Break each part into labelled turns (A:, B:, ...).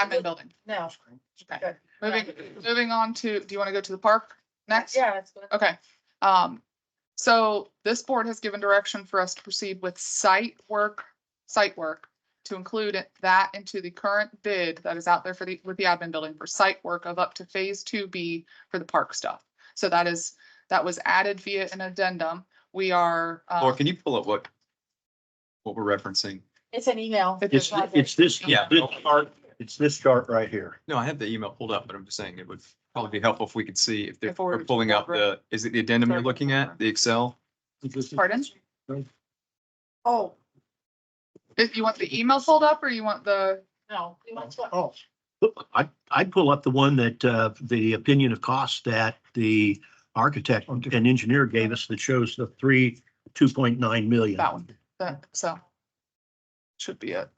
A: admin building.
B: No.
A: Okay, moving, moving on to, do you want to go to the park next?
B: Yeah, that's good.
A: Okay, um, so this board has given direction for us to proceed with site work, site work. To include it- that into the current bid that is out there for the, with the admin building for site work of up to phase two B for the park stuff. So that is, that was added via an addendum. We are. uh,
C: Laura, can you pull up what, what we're referencing?
B: It's an email.
A: It's-
D: It's, it's this,
C: Yeah.
D: yeah, this chart, it's this chart right here.
C: No, I have the email pulled up, but I'm just saying it would probably be helpful if we could see if they're
A: If we're-
C: they're pulling up the, is it the addendum you're looking at, the Excel?
A: Pardon?
B: Oh,
A: If you want the email pulled up or you want the,
B: no. we want to-
D: Oh, I, I'd pull up the one that, uh, the opinion of cost that the architect and engineer gave us that shows the three, two point nine million.
A: That one. the, so. Should be it.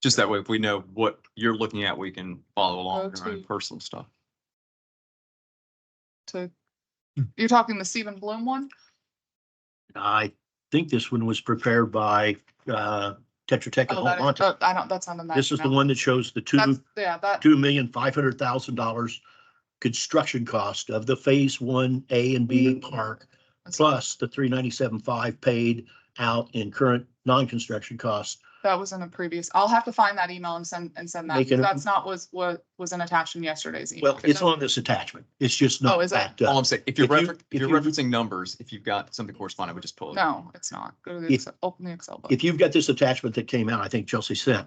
C: Just that way, if we know what you're looking at, we can follow along with our own
A: to-
C: personal stuff.
A: to, you're talking the Stephen Bloom one?
D: I think this one was prepared by, uh, Tetra Tech and
A: Oh, that is-
D: Almonte.
A: oh, I don't, that's not in that.
D: This is the
A: email.
D: one that shows the
A: That's,
D: two,
A: yeah, that,
D: two million, five hundred thousand dollars construction cost of the phase one A and B
A: Mm-hmm.
D: park plus the three ninety-seven five paid out in current non-construction costs.
A: that was in a previous, I'll have to find that email and send, and send that.
D: Make it-
A: That's not was, what was in attached in yesterday's email.
D: Well, it's on this attachment. It's just
A: Oh,
D: not uh,
A: is it?
D: backed
C: All
D: up.
C: I'm saying, if you're
D: if you-
C: referencing, if
D: if
C: you're
D: you-
C: referencing numbers, if you've got something corresponding, we just pull it.
A: No, it's not. Go to the,
D: If-
A: Excel- open the Excel book.
D: If you've got this attachment that came out, I think Chelsea sent,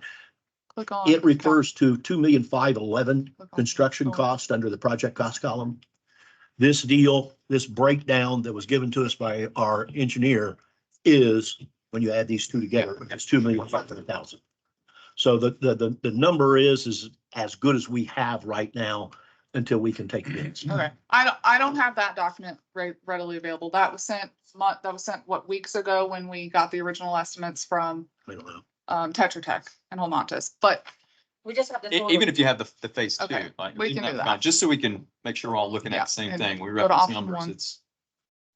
A: Click on.
D: it refers to two million five eleven
A: click on- Oh.
D: construction cost under the project cost column. This deal, this breakdown that was given to us by our engineer is, when you add these two together, it's two million five hundred thousand. So the, the, the, the number is, is as good as we have right now until we can take bids.
A: Okay, I don't, I don't have that document re- readily available. That was sent month, that was sent, what, weeks ago when we got the original estimates from,
D: I don't know.
A: um, Tetra Tech and Holmontis, but
B: We just have to.
C: E-
B: sort of-
C: Even if you have the, the phase two,
A: Okay,
C: like,
A: we
C: even
A: can
C: that
A: do
C: amount,
A: that.
C: just so we can make sure we're all looking
A: Yeah,
C: at the same
A: and
C: thing. We
A: to
C: reference
A: option
C: numbers,
A: one.
C: it's.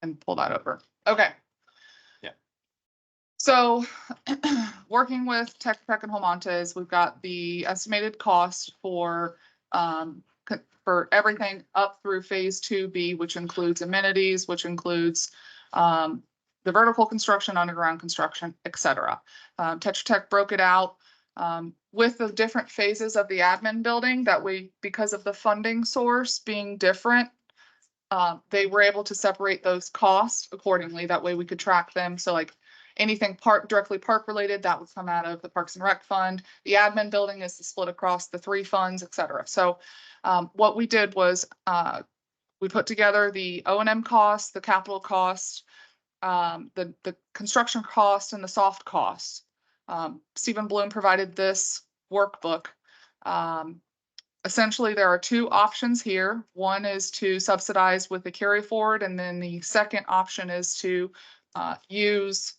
A: and pull that over. Okay.
C: Yeah.
A: So, working with Tech Tech and Holmontes, we've got the estimated cost for, um, c- for everything up through phase two B, which includes amenities, which includes, um, the vertical construction, underground construction, et cetera. Um, Tetra Tech broke it out, um, with the different phases of the admin building that we, because of the funding source being different, uh, they were able to separate those costs accordingly. That way we could track them. So like anything park, directly park related, that would come out of the Parks and Rec Fund. The admin building is split across the three funds, et cetera. So um, what we did was uh, we put together the O and M costs, the capital cost, um, the, the construction cost and the soft costs. Um, Stephen Bloom provided this workbook. Um, essentially, there are two options here. One is to subsidize with the carry forward, and then the second option is to uh, use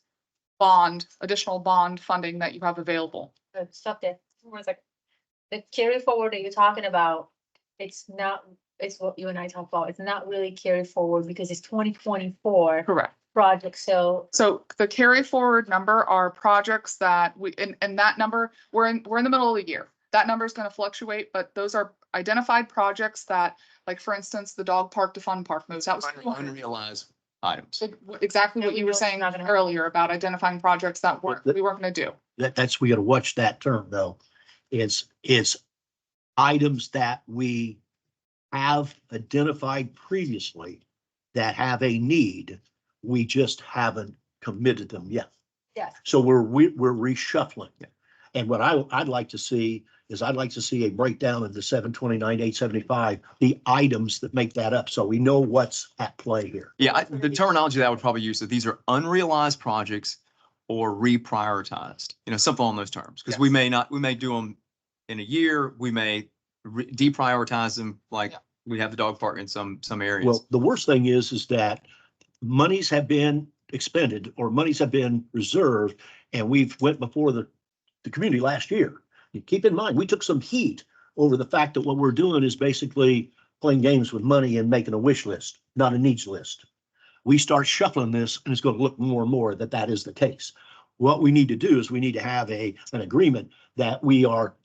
A: bond, additional bond funding that you have available.
B: uh, Stop there. For a second. The carry forward that you're talking about, it's not, it's what you and I talked about. It's not really carry forward because it's twenty twenty-four
A: Correct.
B: project, so
A: So the carry forward number are projects that we, and, and that number, we're in, we're in the middle of the year. That number is gonna fluctuate, but those are identified projects that, like, for instance, the dog park to fun park moves. That was
C: Unrealized items.
A: Ex- exactly
B: No,
A: what
B: we
A: you were
B: know it's
A: saying
B: not gonna happen.
A: earlier about identifying projects that weren't,
D: that-
A: we weren't gonna do.
D: that, that's, we gotta watch that term though. It's, it's items that we have identified previously that have a need. We just haven't committed them yet.
B: yes.
D: So we're, we- we're reshuffling. And what I, I'd like to see is I'd like to see a breakdown of the seven twenty-nine, eight seventy-five, the items that make that up. So we know what's at play here.
C: Yeah, I- the terminology that I would probably use, that these are unrealized projects or reprioritized, you know, something on those terms. Because we
A: Yes.
C: may not, we may do them in a year, we may re- deprioritize them, like
A: Yeah.
C: we have the dog park in some, some areas.
D: Well, the worst thing is, is that monies have been expended or monies have been reserved and we've went before the, the community last year. You Keep in mind, we took some heat over the fact that what we're doing is basically playing games with money and making a wish list, not a needs list. We start shuffling this and it's going to look more and more that that is the case. What we need to do is we need to have a, an agreement that we are